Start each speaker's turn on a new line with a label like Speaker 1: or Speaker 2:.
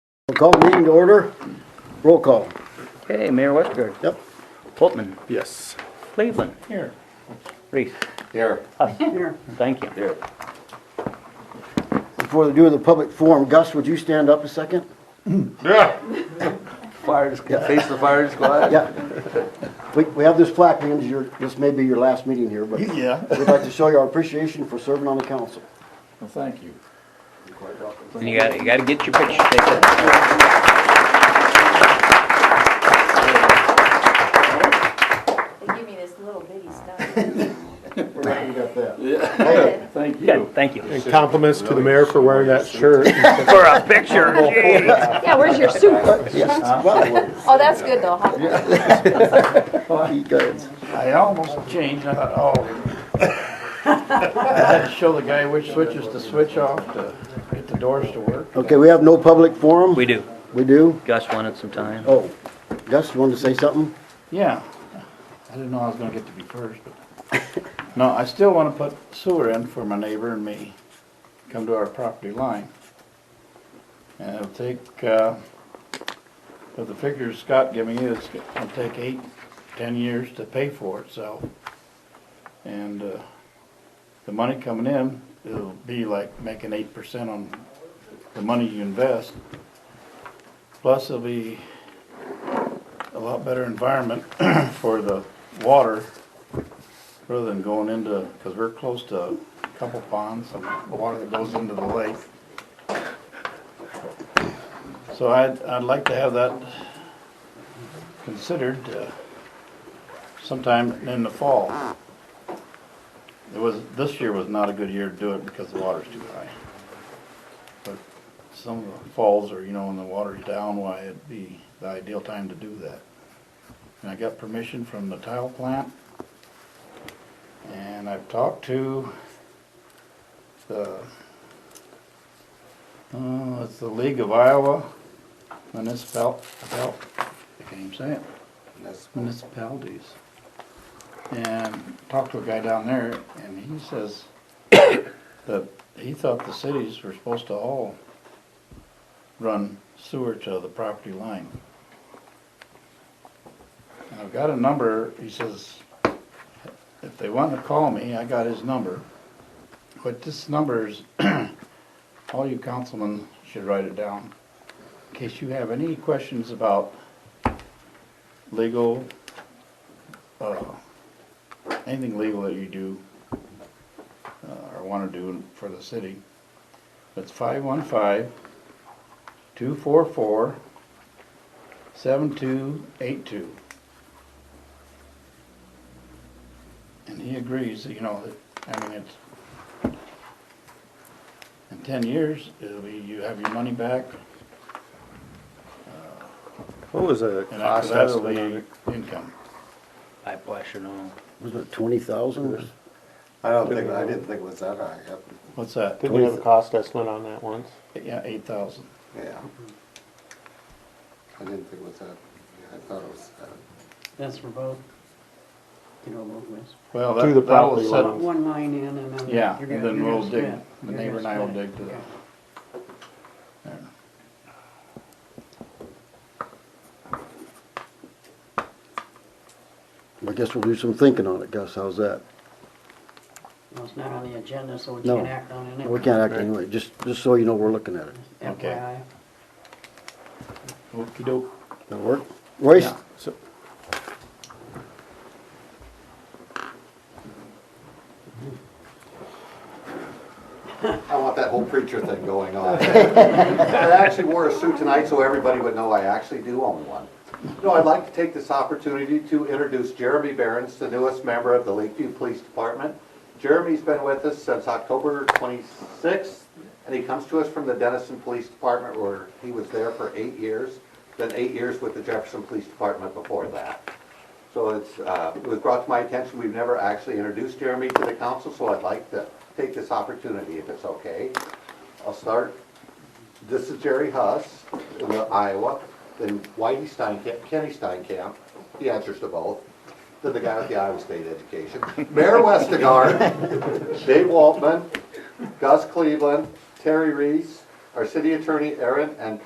Speaker 1: We'll call the meeting to order. Roll call.
Speaker 2: Okay, Mayor Westgard,
Speaker 1: Yep.
Speaker 2: Holtman,
Speaker 3: Yes.
Speaker 2: Cleveland. Here. Reese.
Speaker 3: Here.
Speaker 2: Huss. Here. Thank you.
Speaker 3: Here.
Speaker 1: Before the do of the public forum, Gus, would you stand up a second?
Speaker 3: Yeah.
Speaker 4: Fire squad, face the fire squad?
Speaker 1: Yeah. We, we have this plaque, means your, this may be your last meeting here, but we'd
Speaker 4: Yeah.
Speaker 1: like to show you our appreciation for serving on the council.
Speaker 4: Well, thank you.
Speaker 2: And you gotta, you gotta get your picture taken.
Speaker 5: They give me this little bitty stuff.
Speaker 1: We're glad you got that.
Speaker 4: Thank you.
Speaker 2: Good, thank you.
Speaker 3: And compliments to the mayor for wearing that shirt.
Speaker 2: For a picture, geez.
Speaker 5: Yeah, where's your soup?
Speaker 4: Uh-huh.
Speaker 1: Yes, well,
Speaker 5: Oh, that's good though, huh?
Speaker 1: he goes.
Speaker 4: I almost changed, I thought, oh. I had to show the guy which switches to switch off to get the doors to work.
Speaker 1: Okay, we have no public forum?
Speaker 2: We do.
Speaker 1: We do?
Speaker 2: Gus wanted some time.
Speaker 1: Oh, Gus, you wanted to say something?
Speaker 4: Yeah, I didn't know I was gonna get to be first, but. No, I still wanna put sewer in for my neighbor and me, come to our property line. And it'll take, uh, but the figures Scott gave me is, it'll take eight, ten years to pay for itself. And, uh, the money coming in, it'll be like making eight percent on the money you invest. Plus it'll be a lot better environment for the water rather than going into, because we're close to a couple ponds, some water that goes into the lake. So I'd, I'd like to have that considered uh, sometime in the fall. It was, this year was not a good year to do it because the water's too high. But some of the falls are, you know, when the water's down, why it'd be the ideal time to do that. And I got permission from the tile plant. And I've talked to the, uh, it's the League of Iowa Municipal, Municipal- I can't even say it. Municipalities. And talked to a guy down there and he says that he thought the cities were supposed to all run sewer to the property line. And I've got a number, he says, if they want to call me, I got his number. But this number is, all you councilmen should write it down. In case you have any questions about legal, uh, anything legal that you do, uh, or want to do for the city. That's five one five two four four seven two eight two. And he agrees, you know, that, I mean, it's, in ten years, it'll be, you have your money back,
Speaker 3: What was the
Speaker 4: and after
Speaker 3: cost
Speaker 4: that, it'll
Speaker 3: estimate on
Speaker 4: be
Speaker 3: it?
Speaker 4: income.
Speaker 2: I question all.
Speaker 1: Was it twenty thousand?
Speaker 6: I don't think, I didn't think it was that high, yep,
Speaker 4: What's that?
Speaker 3: Didn't we have a cost estimate on that once?
Speaker 4: Yeah, eight thousand.
Speaker 6: yeah. I didn't think it was that, yeah, I thought it was that.
Speaker 7: That's for both, you know, both ways.
Speaker 4: Well,
Speaker 3: Through the
Speaker 4: that, that was
Speaker 3: property
Speaker 4: set,
Speaker 3: line.
Speaker 7: One line in and then.
Speaker 4: yeah,
Speaker 7: you're gonna-
Speaker 4: then
Speaker 7: you're
Speaker 4: we'll
Speaker 7: gonna
Speaker 4: dig,
Speaker 7: split.
Speaker 4: the
Speaker 7: You're
Speaker 4: neighbor and I will
Speaker 7: gonna split
Speaker 4: dig
Speaker 7: it.
Speaker 4: to that. There.
Speaker 1: I guess we'll do some thinking on it, Gus, how's that?
Speaker 7: Well, it's not on the agenda, so we
Speaker 1: No.
Speaker 7: can't act on it.
Speaker 1: We can't act anyway, just, just so you know, we're looking at it.
Speaker 4: Okay.
Speaker 7: FYI.
Speaker 4: Okey-doke.
Speaker 1: That work? Royce,
Speaker 4: Yeah.
Speaker 3: So-
Speaker 6: I want that whole preacher thing going on. I actually wore a suit tonight so everybody would know I actually do own one. No, I'd like to take this opportunity to introduce Jeremy Behrens, the newest member of the Lakeview Police Department. Jeremy's been with us since October 26th, and he comes to us from the Dennison Police Department where he was there for eight years, then eight years with the Jefferson Police Department before that. So it's, uh, it was brought to my attention, we've never actually introduced Jeremy to the council, so I'd like to take this opportunity, if it's okay. I'll start, this is Jerry Huss, in Iowa, then Whitey Steinkamp, Kenny Steinkamp, he answers to both, then the guy with the Iowa State education, Mayor Westergaard, Dave Waltman, Gus Cleveland, Terry Reese, our city attorney Aaron, and